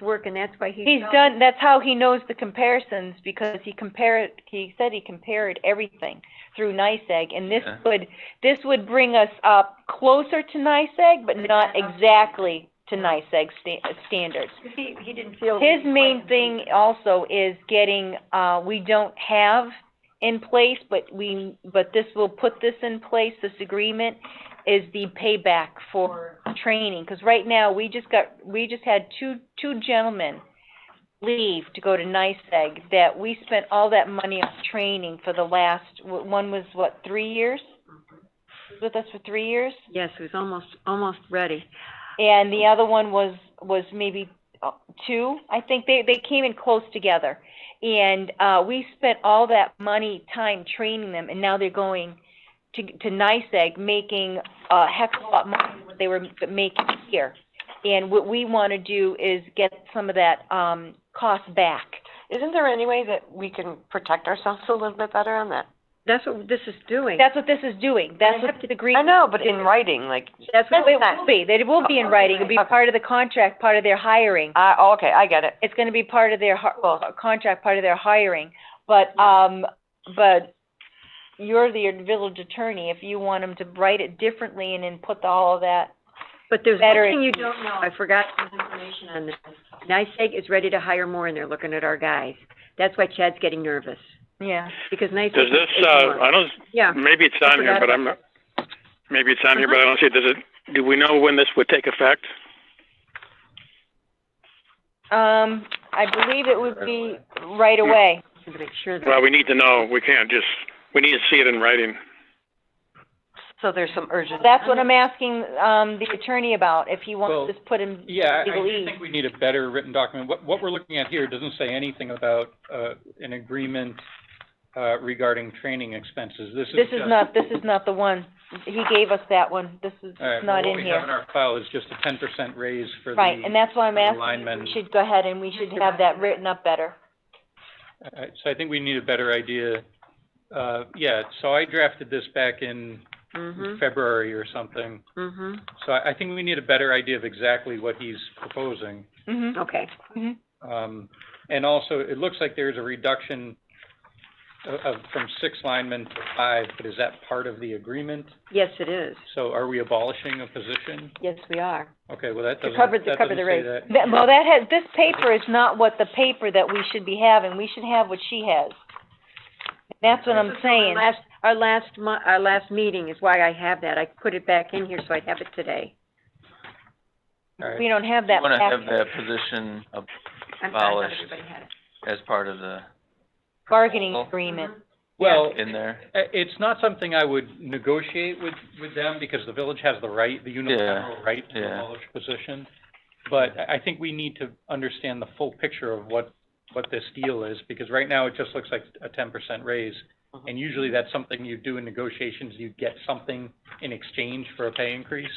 work, and that's why he's. He's done, that's how he knows the comparisons, because he compared, he said he compared everything through NICEAG, and this Yeah. would, this would bring us up closer to NICEAG, but not exactly to NICEAG sta- standards. He, he didn't feel. His main thing also is getting, uh, we don't have in place, but we, but this will put this in place, this agreement, is the payback for training. Because right now, we just got, we just had two, two gentlemen leave to go to NICEAG that we spent all that money on training for the last, one was what, three years? With us for three years? Yes, he was almost, almost ready. and the other one was was maybe uh, two. I think they they came in close together, and uh, we spent all that money, time training them, and now they're going to to NICEAG, making a heck of a lot more than what they were making here. And what we want to do is get some of that um, cost back. Isn't there any way that we can protect ourselves a little bit better on that? That's what this is doing. That's what this is doing. That's what the agreement. I know, but in writing, like, That's No, what, it will be. It will be in writing. It'll be Okay. part of the contract, part of their hiring. I, oh, okay, I get it. it's gonna be part of their hi- well, a contract, part of their hiring, but, um, but you're the village attorney, if you want them to write it differently and then put the- all of that, but there's better- one thing you don't know, I forgot some information on this. NICEAG is ready to hire more, and they're looking at our guys. That's why Chad's getting nervous, yeah. because NICEAG. Does is this, taking uh, on- I don't, Oh, Yeah, maybe it's I on here, forgot but I'm, about not maybe it's on here, but Uh-huh. I don't see it. Does it, do we know when this would take effect? Um, I believe it would be right away. to make sure that, Well, we need to know. We can't just, we need to see it in writing. So there's some urgent. That's what I'm asking, um, the attorney about, if he Well, wants to put him, Yeah, I- I legal do ease. think we need a better written document. What, what we're looking at here doesn't say anything about, uh, an agreement, uh, regarding training expenses. This is this is just- not, this is not the one. He gave us that one, this is All right, not well, in What we have in here. our file is just a ten percent raise for the. Right, and that's why I'm for the asking, linemen. we should go ahead and we should have that written up better. Uh, so I think we need a better idea. Uh, yeah, so I drafted this back in Mm-hmm. mhm, February or something. mhm, So I, I think we need a better idea of exactly what he's proposing. Mm-hmm, okay. mm-hmm. Um, and also, it looks like there's a reduction of, of, from six linemen to five, but is that part of the agreement? Yes, it is. So are we abolishing a position? Yes, we are. Okay, well, that To doesn't, cover, that to doesn't cover the say raise. that. That, well, that has, this paper is not what the paper that we should be having, we should have what she has. That's what I'm This is our saying, Last, our last mu- our last meeting is why I have that. I put it back in here so I'd have it today. All right. we don't have that You wanna have packet. that position of, I'm sorry, not Polished. everybody had it. as part of the, bargaining agreement. Mm-hmm. Well, in there. Uh, It's not something I would negotiate with, with them, because the village has the right, the unilateral right to yeah. abolish position. But I, I think we need to understand the full picture of what, what this deal is, because right now it just looks like a ten percent raise. Uh-huh. And usually that's something you do in negotiations, you get something in exchange for a pay increase.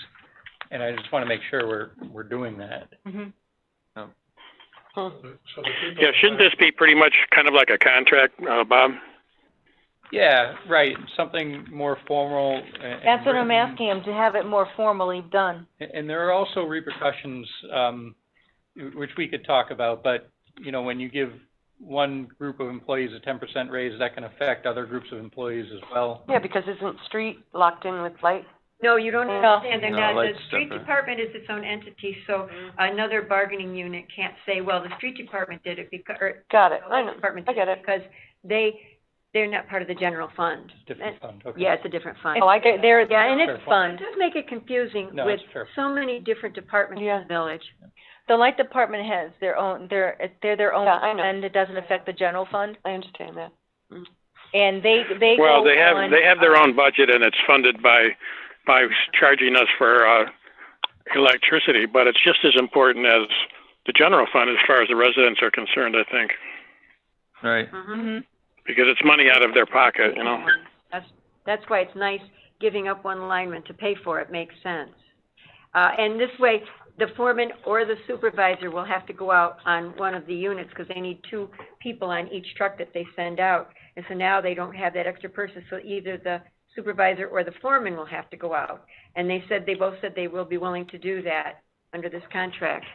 And I just wanna make sure we're, we're doing that. Mhm. Yeah, shouldn't this be pretty much kind of like a contract, uh, Bob? Yeah, right, something more formal a- and. That's what I'm written. asking him, to have it more formally done. A- And there are also repercussions, um, w- which we could talk about, but, you know, when you give one group of employees a ten percent raise, that can affect other groups of employees as well. Yeah, because isn't street locked in with light? No, you don't No. understand. They're No, not, the lights street separate. department is its own entity, so another bargaining unit can't say, well, the street department did it because, or Got it, the I light know, department I did get it it. because they, they're not part of the general fund. Different fund, And- okay. Yeah, it's a different fund. Oh, I There, get it. there- yeah, and Fair it's It point. fun. does make it confusing No, with it's fair. so many different departments in Yeah. the village. The light department has their own, they're, they're their own Yeah, I know. fund, it doesn't affect the general fund, I understand that. and they, they go Well, they have, on, they have their um, own budget and it's funded by, by charging us for, uh, electricity, but it's just as important as the general fund as far as the residents are concerned, I think, Right. Mhm. mhm. because it's money out of their pocket, you know? That's, that's why it's nice giving up one lineman to pay for it, makes sense. Uh, and this way, the foreman or the supervisor will have to go out on one of the units, because they need two people on each truck that they send out. And so now they don't have that extra person, so either the supervisor or the foreman will have to go out. And they said, they both said they will be willing to do that under this contract.